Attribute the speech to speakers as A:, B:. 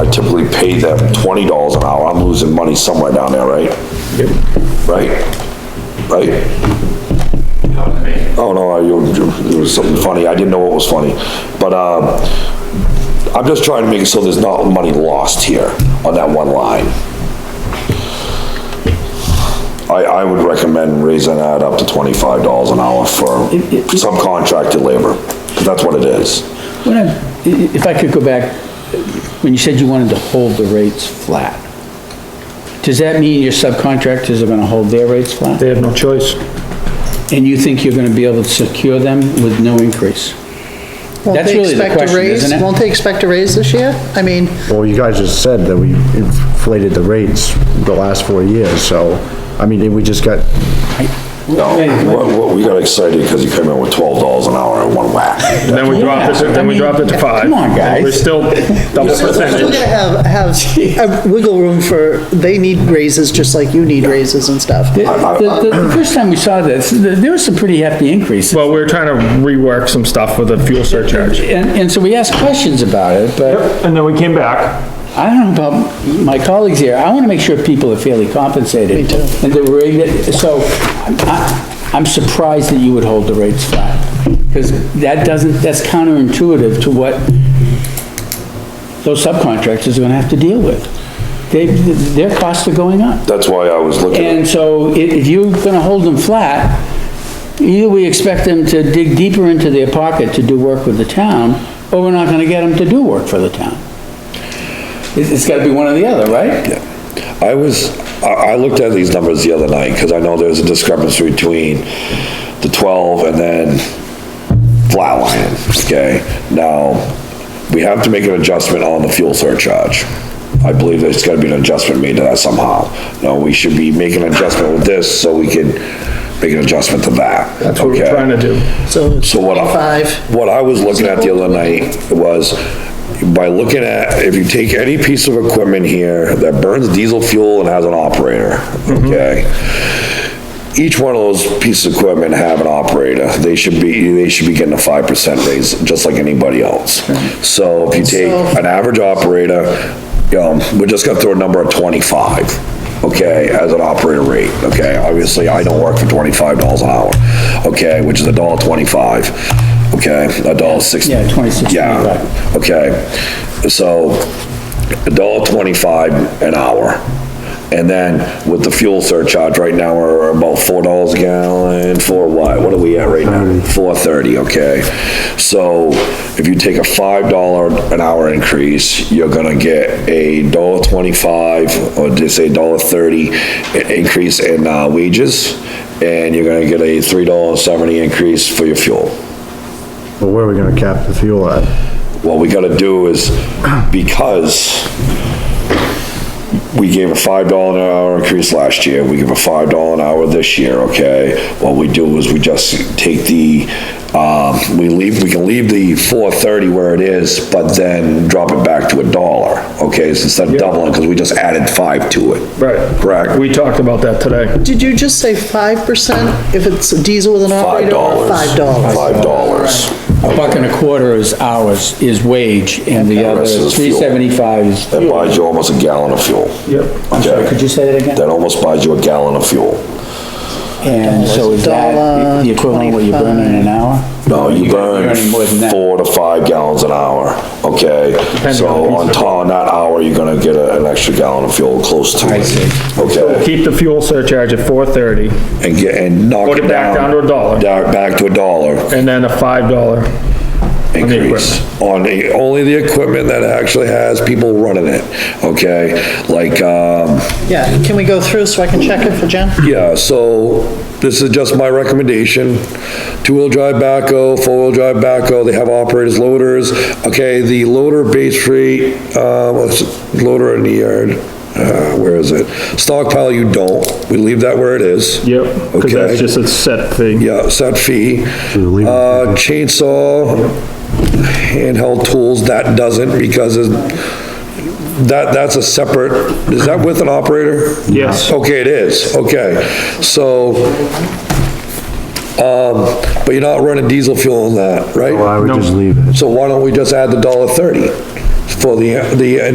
A: I typically pay them twenty dollars an hour, I'm losing money somewhere down there, right? Right? Right? Oh, no, I, you- you- it was something funny, I didn't know what was funny, but, um, I'm just trying to make it so there's not money lost here on that one line. I, I would recommend raising that up to twenty-five dollars an hour for subcontracted labor, 'cause that's what it is.
B: When I- i- If I could go back, when you said you wanted to hold the rates flat, does that mean your subcontractors are gonna hold their rates flat?
C: They have no choice.
B: And you think you're gonna be able to secure them with no increase?
D: Won't
B: That's
D: they
B: really the
D: expect a
B: question,
D: raise-
B: isn't it?
D: Won't they expect a raise this year? I mean,
E: Well, you guys just said that we inflated the rates the last four years, so, I mean, we just got,
A: No, what, what, we got excited because he came in with twelve dollars an hour in one whack.
C: And then we dropped it, to- then we dropped it to five.
B: Come on, guys.
C: We're still double
D: they're still
C: percentage.
D: gonna have, have a wiggle room for, they need raises just like you need raises and stuff.
B: The, the- the- the first time we saw this, th- there was some pretty hefty increases.
C: Well, we're trying to rework some stuff with a fuel surcharge.
B: And, and so we asked questions about it, but
C: And then we came back.
B: I don't know about my colleagues here, I wanna make sure people are fairly compensated.
D: Me too.
B: And that we're, able- so, I'm, I- I'm surprised that you would hold the rates flat, because that doesn't, that's counterintuitive to what those subcontractors are gonna have to deal with. They, their costs are going up.
A: That's why I was looking. at-
B: And so i- if you're gonna hold them flat, either we expect them to dig deeper into their pocket to do work with the town, or we're not gonna get them to do work for the town. It's, it's gotta be one or the other, right?
A: I was, I, I looked at these numbers the other night, because I know there's a discrepancy between the twelve and then flatline, okay? Now, we have to make an adjustment on the fuel surcharge. I believe there's gotta be an adjustment made to that somehow. No, we should be making an adjustment with this, so we can make an adjustment to that.
C: That's what we're
A: okay?
C: trying to do.
D: So
A: So what I,
D: Five.
A: what I was looking at the other night was, by looking at, if you take any piece of equipment here that burns diesel fuel and has an operator, okay? Each one of those pieces of equipment have an operator, they should be, they should be getting a five percent raise, just like anybody else. So if you take an average operator, um, we're just gonna throw a number of twenty-five, okay, as an operator rate, okay? Obviously, I don't work for twenty-five dollars an hour, okay, which is a dollar twenty-five, okay, a dollar sixty.
B: Yeah, 26,
A: Yeah, okay, so a dollar twenty-five an hour. And then with the fuel surcharge, right now, we're about four dollars a gallon, for what? What are we at right now? Four thirty, okay? So if you take a five dollar an hour increase, you're gonna get a dollar twenty-five, or just say dollar thirty i- increase in uh, wages, and you're gonna get a three dollar seventy increase for your fuel
E: well, where are we gonna cap the fuel at?
A: what we gotta do is, because we gave a five dollar an hour increase last year, we give a five dollar an hour this year, okay? What we do is we just take the, um, we leave, we can leave the four thirty where it is, but then drop it back to a dollar, okay? So Instead of doubling, because we just added five to it.
C: Right.
A: Correct.
C: We talked about that today.
D: did you just say five percent if it's a diesel with an
A: Five
D: operator? or
A: dollars.
D: Five dollars.
A: Five dollars.
B: A buck and a quarter is hours, is wage, and the other
A: rest is
B: three
A: fuel.
B: seventy-five is
A: That
B: fuel.
A: buys you almost a gallon of fuel.
C: Yep.
B: I'm sorry, could you say that
A: That
B: again?
A: almost buys you a gallon of fuel.
B: And so is that the equivalent of what you're burning in an hour?
A: No, you
B: You're
A: burn
B: burning more than that.
A: four to five gallons an hour, okay?
C: Depending on
A: So
C: the piece
A: on
C: of-
A: top, on that hour, you're gonna get a- an extra gallon of fuel close to it. Okay,
C: Keep the fuel surcharge at four thirty,
A: and get, and knock
C: Put
A: it down.
C: it back down to a dollar.
A: Down- Back to a dollar
C: and then a five dollar. the
A: increase on the, only the equipment that actually has people running it, okay? Like, um,
D: Yeah, can we go through so I can check it for Jen?
A: Yeah, so this is just my recommendation. Two-wheel drive backhoe, four-wheel drive backhoe, they have operators, loaders. Okay, the loader base rate, um, let's- loader in the yard, uh, where is it? Stockpile, you don't. We leave that where it is.
C: Yep, because
A: Okay.
C: that's just a set thing.
A: Yeah, set fee.
E: leave it.
A: Uh, chainsaw, handheld tools, that doesn't because it- that, that's a separate, is that with an operator?
C: Yes.
A: Okay, it is, okay. So, um, but you're not running diesel fuel on that,
E: Well, I
A: right?
E: would just leave it.
A: So why don't we just add the dollar thirty for the, the